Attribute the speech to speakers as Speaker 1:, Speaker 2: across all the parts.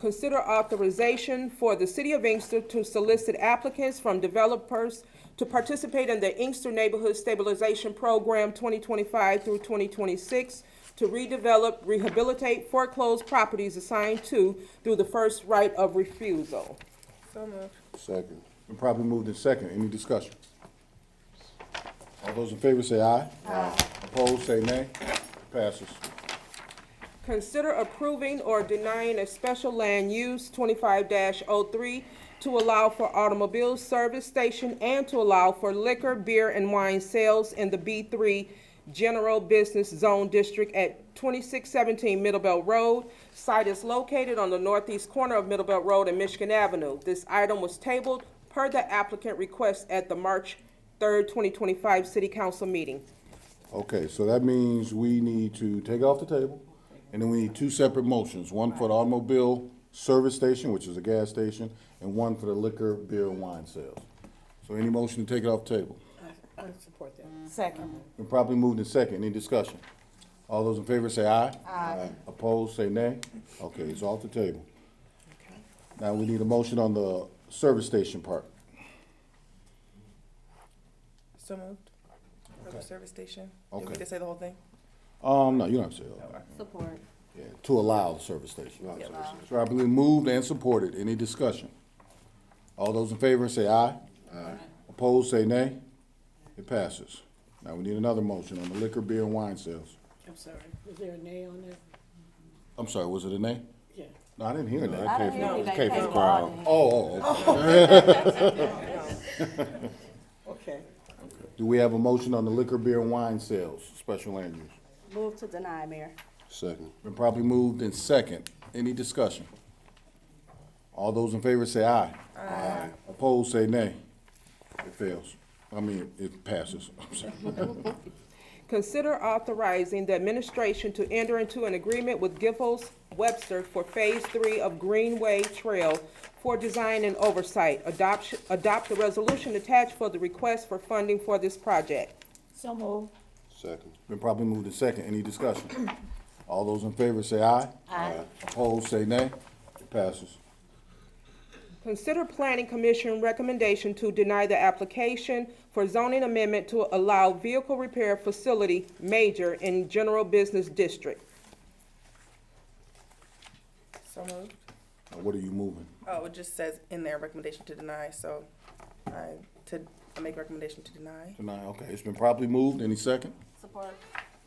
Speaker 1: Consider authorization for the City of Inkster to solicit applicants from developers to participate in the Inkster Neighborhood Stabilization Program 2025 through 2026 to redevelop, rehabilitate foreclosed properties assigned to through the first right of refusal.
Speaker 2: So moved.
Speaker 3: Second. Been properly moved in second. Any discussion? All those in favor say aye. Aye. Opposed, say nay. Passes.
Speaker 1: Consider approving or denying a special land use twenty-five 3 to allow for automobile service station and to allow for liquor, beer, and wine sales in the B three General Business Zone District at twenty-six seventeen Middlebelt Road. Site is located on the northeast corner of Middlebelt Road and Michigan Avenue. This item was tabled per the applicant request at the March third, twenty twenty-five city council meeting.
Speaker 3: Okay, so that means we need to take it off the table, and then we need two separate motions, one for the automobile service station, which is a gas station, and one for the liquor, beer, and wine sales. So any motion to take it off the table?
Speaker 2: I support that.
Speaker 4: Second.
Speaker 3: Been properly moved in second. Any discussion? All those in favor say aye. Aye. Opposed, say nay. Okay, it's off the table. Now we need a motion on the service station part.
Speaker 2: So moved. For the service station. Did we
Speaker 3: Okay.
Speaker 2: just say the whole thing?
Speaker 3: Um, no, you don't have to say that.
Speaker 4: Support.
Speaker 3: Yeah, to allow the service station. Properly moved and supported. Any discussion? All those in favor say aye. Aye. Opposed, say nay. It passes. Now we need another motion on the liquor, beer, and wine sales.
Speaker 5: I'm sorry, was there a nay on that?
Speaker 3: I'm sorry, was it a nay?
Speaker 5: Yeah.
Speaker 3: No, I didn't hear that.
Speaker 4: I didn't hear
Speaker 3: It
Speaker 4: they
Speaker 3: came from-
Speaker 4: tabled all of it.
Speaker 3: Oh, oh, okay.
Speaker 5: Okay.
Speaker 3: Do we have a motion on the liquor, beer, and wine sales, special land use?
Speaker 4: Move to deny, Mayor.
Speaker 3: Second. Been properly moved in second. Any discussion? All those in favor say aye. Aye. Opposed, say nay. It fails. I mean, it passes. I'm sorry.
Speaker 1: Consider authorizing the administration to enter into an agreement with Giffords Webster for Phase Three of Greenway Trail for design and oversight. Adoption, adopt the resolution attached for the request for funding for this project.
Speaker 4: So move.
Speaker 3: Second. Been properly moved in second. Any discussion? All those in favor say aye. Aye. Opposed, say nay. It passes.
Speaker 1: Consider Planning Commission recommendation to deny the application for zoning amendment to allow vehicle repair facility major in general business district.
Speaker 2: So moved.
Speaker 3: Now, what are you moving?
Speaker 2: Oh, it just says in there recommendation to deny, so I, to, I make recommendation to deny.
Speaker 3: Tonight, okay. It's been properly moved. Any second?
Speaker 4: Support.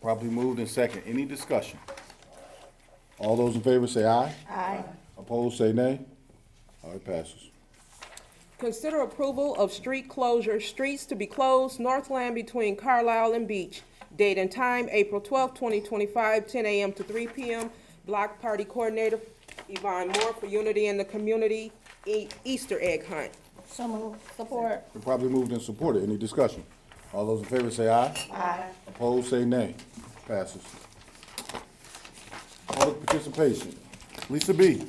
Speaker 3: Properly moved in second. Any discussion? All those in favor say aye.
Speaker 4: Aye.
Speaker 3: Opposed, say nay. All right, passes.
Speaker 1: Consider approval of street closure, streets to be closed, Northland between Carlisle and Beach. Date and time, April 12, 2025, 10 a.m. to 3 p.m. Block Party Coordinator Yvonne Moore for Unity in the Community E- Easter Egg Hunt.
Speaker 4: So move. Support.
Speaker 3: Been properly moved and supported. Any discussion? All those in favor say aye.
Speaker 4: Aye.
Speaker 3: Opposed, say nay. Passes. Public participation. Lisa B.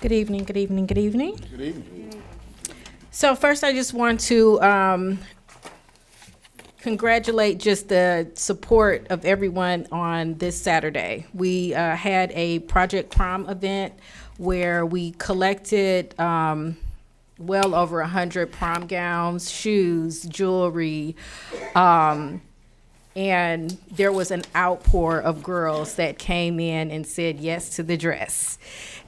Speaker 6: Good evening, good evening, good evening.
Speaker 3: Good evening.
Speaker 6: So first, I just want to um, congratulate just the support of everyone on this Saturday. We uh, had a Project Prom event where we collected um, well over a hundred prom gowns, shoes, jewelry, um, and there was an outpour of girls that came in and said yes to the dress.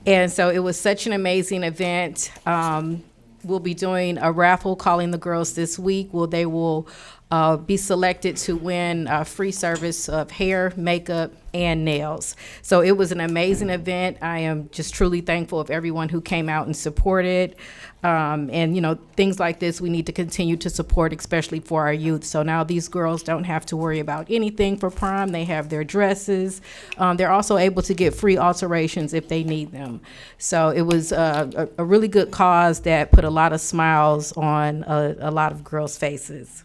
Speaker 6: And so it was such an amazing event. Um, we'll be doing a raffle calling the girls this week. Well, they will uh, be selected to win a free service of hair, makeup, and nails. So it was an amazing event. I am just truly thankful of everyone who came out and supported. Um, and you know, things like this we need to continue to support, especially for our youth. So now these girls don't have to worry about anything for prom. They have their dresses. Um, they're also able to get free alterations if they need them. So it was uh, a, a really good cause that put a lot of smiles on a, a lot of girls' faces.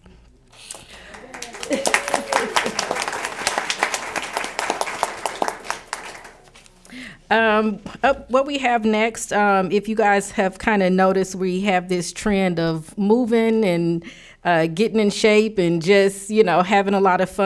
Speaker 6: Um, up, what we have next, um, if you guys have kind of noticed, we have this trend of moving and uh, getting in shape and just, you know, having a lot of fun.